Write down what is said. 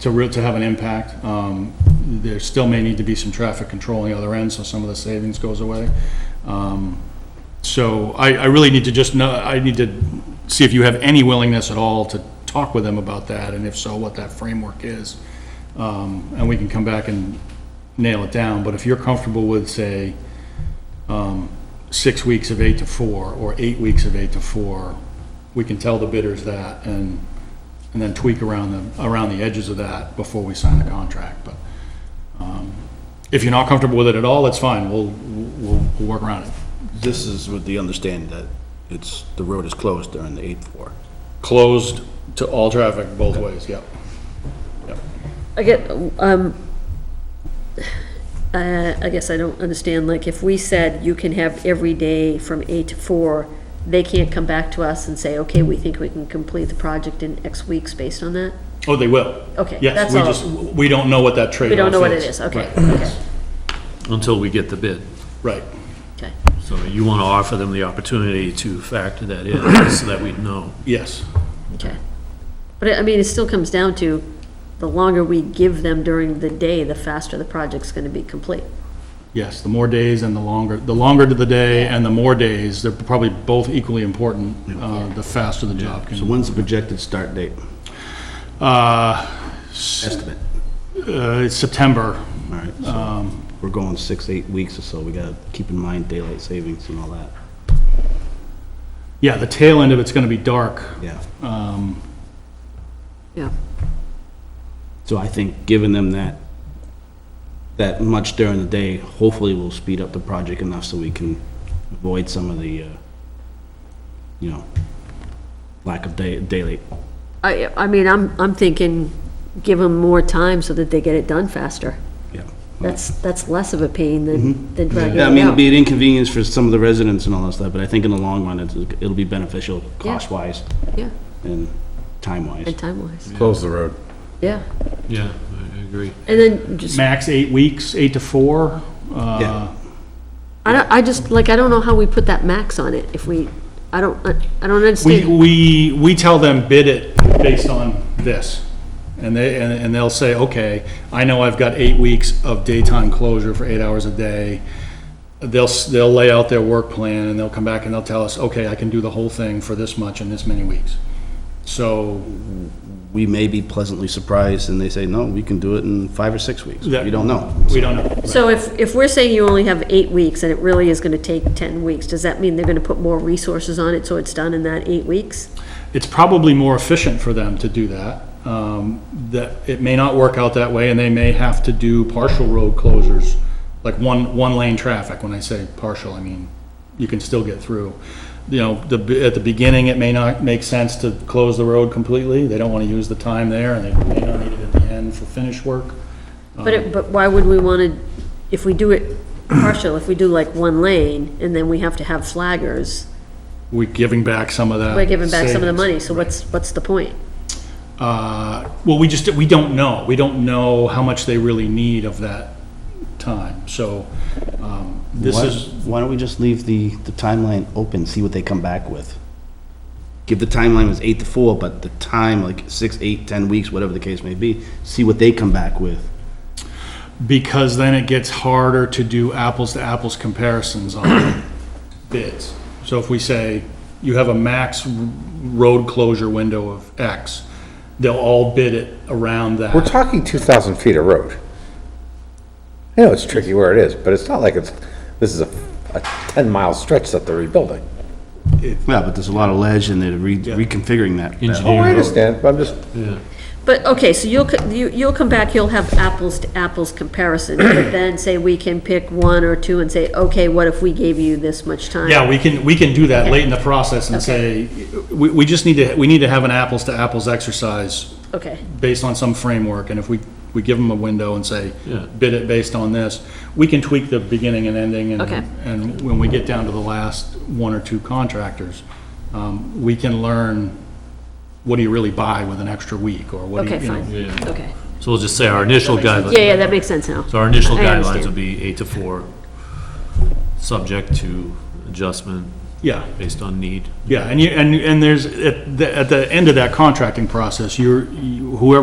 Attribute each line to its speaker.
Speaker 1: to real, to have an impact. Um, There still may need to be some traffic control on the other end, so some of the savings goes away. Um, So I, I really need to just know, I need to see if you have any willingness at all to talk with them about that, and if so, what that framework is. Um, And we can come back and nail it down, but if you're comfortable with, say, six weeks of eight to four, or eight weeks of eight to four, we can tell the bidders that, and, and then tweak around the, around the edges of that before we sign the contract, but, um, if you're not comfortable with it at all, that's fine, we'll, we'll, we'll work around it.
Speaker 2: This is with the understanding that it's, the road is closed during the eighth floor.
Speaker 1: Closed to all traffic both ways, yep.
Speaker 3: I get, um, uh, I guess I don't understand, like, if we said you can have every day from eight to four, they can't come back to us and say, okay, we think we can complete the project in X weeks based on that?
Speaker 1: Oh, they will.
Speaker 3: Okay,
Speaker 1: Yes,
Speaker 3: that's
Speaker 1: we
Speaker 3: all.
Speaker 1: just, we don't know what that trade-off is.
Speaker 3: We don't know what it is, okay,
Speaker 1: Right,
Speaker 3: okay,
Speaker 4: until we get the bid.
Speaker 1: Right,
Speaker 3: okay.
Speaker 4: So you want to offer them the opportunity to factor that in, so that we'd know.
Speaker 1: yes,
Speaker 3: Okay. But I I mean, it still comes down to, the longer we give them during the day, the faster the project's gonna be complete.
Speaker 1: yes, the more days and the longer, the longer to the day and the more days, they're probably both equally important, uh, the faster the job can.
Speaker 2: So when's the projected start date?
Speaker 1: Uh,
Speaker 2: Estimate.
Speaker 1: uh, it's September,
Speaker 2: All right, so we're going six, eight weeks or so. We gotta keep in mind daylight savings and all that.
Speaker 1: yeah, the tail end of it's gonna be dark.
Speaker 2: Yeah.
Speaker 3: Yeah.
Speaker 2: So I think giving them that, that much during the day, hopefully will speed up the project enough so we can avoid some of the, uh, you know, lack of day, daylight.
Speaker 3: I, I mean, I'm, I'm thinking, give them more time so that they get it done faster.
Speaker 2: Yeah.
Speaker 3: That's, that's less of a pain than, than
Speaker 2: Mm-hmm.
Speaker 3: dragging it
Speaker 2: Yeah, I mean, it'll be
Speaker 3: out.
Speaker 2: an inconvenience for some of the residents and all that stuff, but I think in the long run, it's, it'll be beneficial cost-wise
Speaker 3: Yeah,
Speaker 2: and time-wise.
Speaker 3: and time-wise,
Speaker 5: Close the road.
Speaker 3: yeah.
Speaker 4: Yeah, I agree.
Speaker 3: And then just,
Speaker 1: Max eight weeks, eight to four. uh,
Speaker 2: Yeah.
Speaker 3: I don't, I just, like, I don't know how we put that max on it if we, I don't, I I don't
Speaker 1: We,
Speaker 3: understand.
Speaker 1: we, we tell them bid it based on this. And they, and and they'll say, okay, I know I've got eight weeks of daytime closure for eight hours a day. They'll, s- they'll lay out their work plan and they'll come back and they'll tell us, okay, I can do the whole thing for this much in this many weeks. So
Speaker 2: We may be pleasantly surprised and they say, no, we can do it in five or six weeks.
Speaker 1: That-
Speaker 2: We don't know.
Speaker 1: we don't know.
Speaker 3: So if, if we're saying you only have eight weeks and it really is gonna take ten weeks, does that mean they're gonna put more resources on it so it's done in that eight weeks?
Speaker 1: it's probably more efficient for them to do that. Um, That, it may not work out that way, and they may have to do partial road closures, like one, one lane traffic. When I say partial, I mean, you can still get through. You know, the, at the beginning, it may not make sense to close the road completely. They don't want to use the time there, and they may not need it at the end for finish work.
Speaker 3: But
Speaker 2: Uh.
Speaker 3: it, but why would we wanna, if we do it partial, if we do like one lane and then we have to have flaggers,
Speaker 1: We're giving back some of that.
Speaker 3: we're giving back some of
Speaker 1: savings.
Speaker 3: the money, so what's, what's the point?
Speaker 1: Uh, Well, we just, we don't know. We don't know how much they really need of that time. So um, this
Speaker 2: Why-
Speaker 1: is,
Speaker 2: Why don't we just leave the, the timeline open, see what they come back with? Give the timeline was eight to four, but the time, like six, eight, ten weeks, whatever the case may be, see what they come back with.
Speaker 1: because then it gets harder to do apples-to-apples comparisons on bids. So if we say, you have a max r- road closure window of X, they'll all bid it around that.
Speaker 5: We're talking 2,000 feet of road. I know it's tricky where it is, but it's not like it's, this is a 10-mile stretch that they're rebuilding.
Speaker 2: Yeah, but there's a lot of ledge and they're re- reconfiguring that. that whole-
Speaker 5: Oh, I understand, but I'm just,
Speaker 3: But, okay, so you'll, co- you- you'll come back, you'll have apples to apples comparison, but then say we can pick one or two and say, okay, what if we gave you this much time?
Speaker 1: Yeah, we can, we can do that late in the process and say, we, we just need to, we need to have an apples-to-apples exercise
Speaker 3: Okay,
Speaker 1: based on some framework, and if we, we give them a window and say,
Speaker 4: Yeah.
Speaker 1: bid it based on this, we can tweak the beginning and ending, and,
Speaker 3: Okay.
Speaker 1: and when we get down to the last one or two contractors, um, we can learn, what do you really buy with an extra week, or what do you,
Speaker 3: okay,
Speaker 1: you know?
Speaker 3: fine,
Speaker 4: Yeah.
Speaker 3: okay.
Speaker 4: So we'll just say our initial
Speaker 3: Yeah,
Speaker 4: guidelines,
Speaker 3: yeah, that makes sense now.
Speaker 4: so our initial
Speaker 3: I
Speaker 4: guidelines
Speaker 3: understand.
Speaker 4: would be eight to four, subject to adjustment
Speaker 1: Yeah,
Speaker 4: based on need.
Speaker 1: yeah, and you, and, and there's, at the, at the end of that contracting process, you're, you- whoever